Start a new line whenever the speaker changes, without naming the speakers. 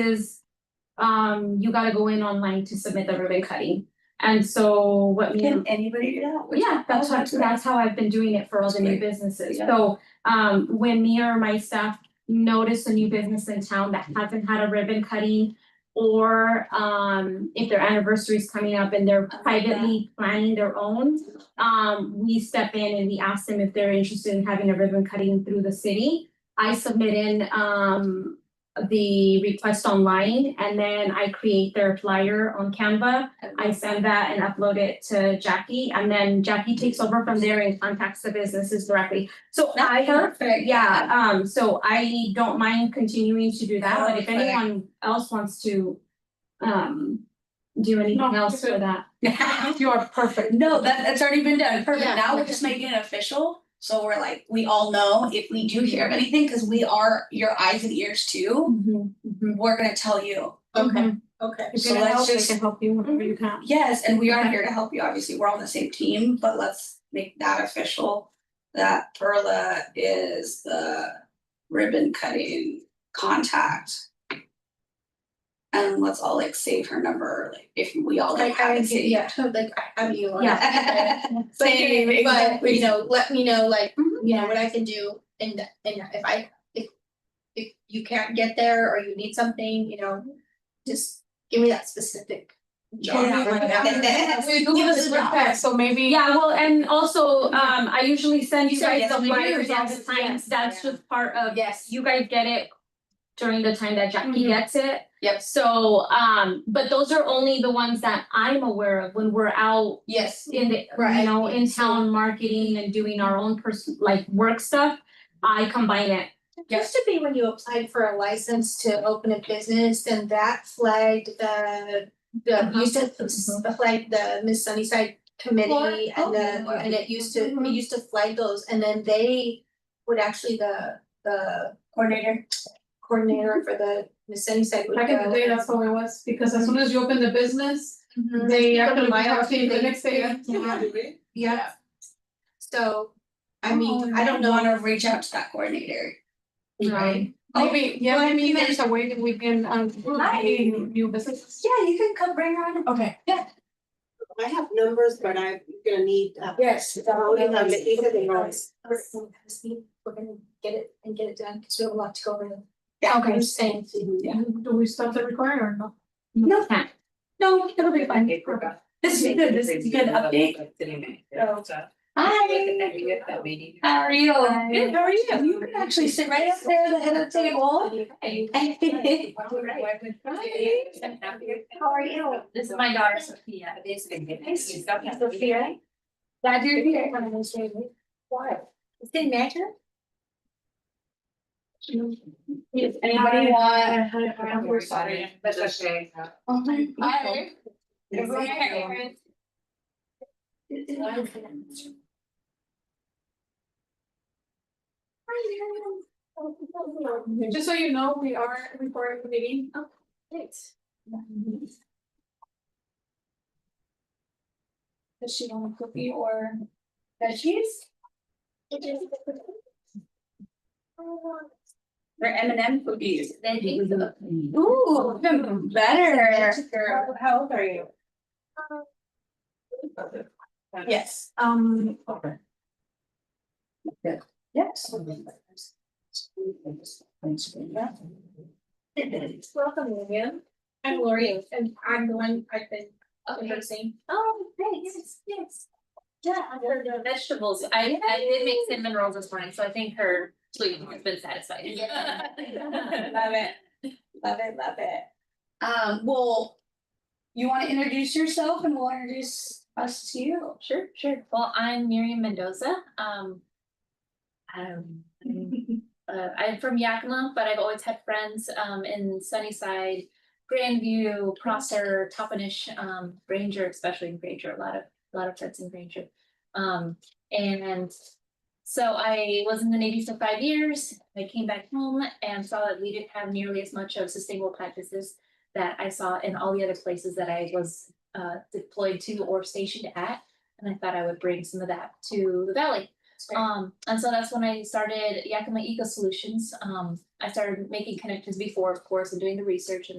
is, um, you gotta go in online to submit the ribbon cutting. And so what we.
Can anybody do that? Which-
Yeah, that's
Oh,
what,
great.
that's how I've been doing it for all
That's
the new
great.
businesses,
Yeah.
so, um, when me or my staff notice a new business in town that hasn't had a ribbon cutting. Or, um, if their anniversary is coming up and they're
I like that.
privately planning their own, um, we step in and we ask them if they're interested in having a ribbon cutting through the city. I submit in, um, the request online and then I create their flyer on Canva. I send that and upload it to Jackie, and then Jackie takes over from there and contacts the businesses directly. So I have,
Perfect.
yeah, um, so I don't mind continuing to do that, but if
Okay.
anyone else wants to um do anything
No,
else for that.
You are perfect.
No, that that's already been done, perfect,
Yeah.
now we're just making it official, so we're like, we all know if we do hear of anything, cause we are your eyes and ears too. We're gonna tell you,
Okay,
Mm-hmm.
okay.
Mm-hmm. If
So
you need
let's
help, I
just-
can help you whenever you can.
yes, and we are here to help you, obviously, we're on the same team, but let's make that official. That Perla is the ribbon cutting contact. And let's all like save her number, like if we all like
Like I
have it
would,
saved.
yeah, like I have you on.
Yeah.
But
Same,
but
exactly.
you know, let me know like,
Mhm.
you know, what I can do and and if I if if you can't get there or you need something, you know, just give me that specific. job.
Yeah.
We do this with that, so maybe.
Yeah, well, and also, um, I usually send you
So,
guys
yes,
the
we do,
flyers all the
yes,
time,
yes,
that's
yeah.
just part of,
Yes.
you guys get it during the time that Jackie
Mhm.
gets it.
Yep.
So, um, but those are only the ones that I'm aware of when we're out
Yes.
in the, you
Right.
know, in town marketing and doing our own person, like work stuff. I combine it.
Used to be when you applied for a license to open a business, then that flagged the, the,
Uh-huh.
used to flag the Miss Sunnyside committee
Or-
and the,
oh, yeah.
and it used to,
Mhm.
it used to flag those, and then they would actually, the, the
Coordinator.
coordinator for the Miss Sunnyside would go.
Back in the day, that's how it was, because as soon as you open the business,
Mhm.
Mm-hmm. they
Go to
actually
my
have to the
office,
next
they-
day.
yeah.
Yeah.
So, I mean,
Oh,
I don't know.
Wanna reach out to that coordinator.
Right.
Maybe, yeah,
Well,
maybe
even-
there's a way that we can, um, maybe new businesses.
Yeah, you can come bring her on.
Okay.
I have numbers, but I'm gonna need.
Yes.
Oh, you have it, you have it right.
um, We're gonna get it and get it done, because we have a lot to go over.
Yeah.
Okay, same.
Yeah.
Do we stop the recording or no?
No. Can't.
No, it'll be fine.
Hi.
This is good, this is a good update. How are you?
Good,
how are you? You can actually sit right up there at the head of the table.
How are you? This is my daughter Sophia. Sophia.
Glad you're here. Why? Didn't matter?
Yes,
Anybody want?
We're sorry. That's okay.
Oh my
Hi.
Just so you know, we are recording the meeting.
Does she want a cookie or veggies?
They're M and M cookies.
Ooh,
Even better.
How old are you?
Yes.
Um,
Yes.
Welcome, William. I'm Lori, and I'm the one I've been rehearsing.
Oh, thanks.
Yes.
Yeah, her vegetables. I I did make cinnamon rolls this morning, so I think her sleep has been satisfied.
Love it. Love it, love it. Um, well, you wanna introduce yourself and we'll introduce us to you.
Sure, sure. Well, I'm Miriam Mendoza. Um. um, uh, I'm from Yakima, but I've always had friends, um, in Sunnyside, Grandview, Prosser, Toppenish, um, Granger, especially in Granger, a lot of, a lot of friends in Granger. Um, and so I was in the Navy for five years. I came back home and saw that we didn't have nearly as much of sustainable practices that I saw in all the other places that I was, uh, deployed to or stationed at. And I thought I would bring some of that to the valley.
great.
Um, and so that's when I started Yakima Eco Solutions. Um, I started making connections before, of course, and doing the research and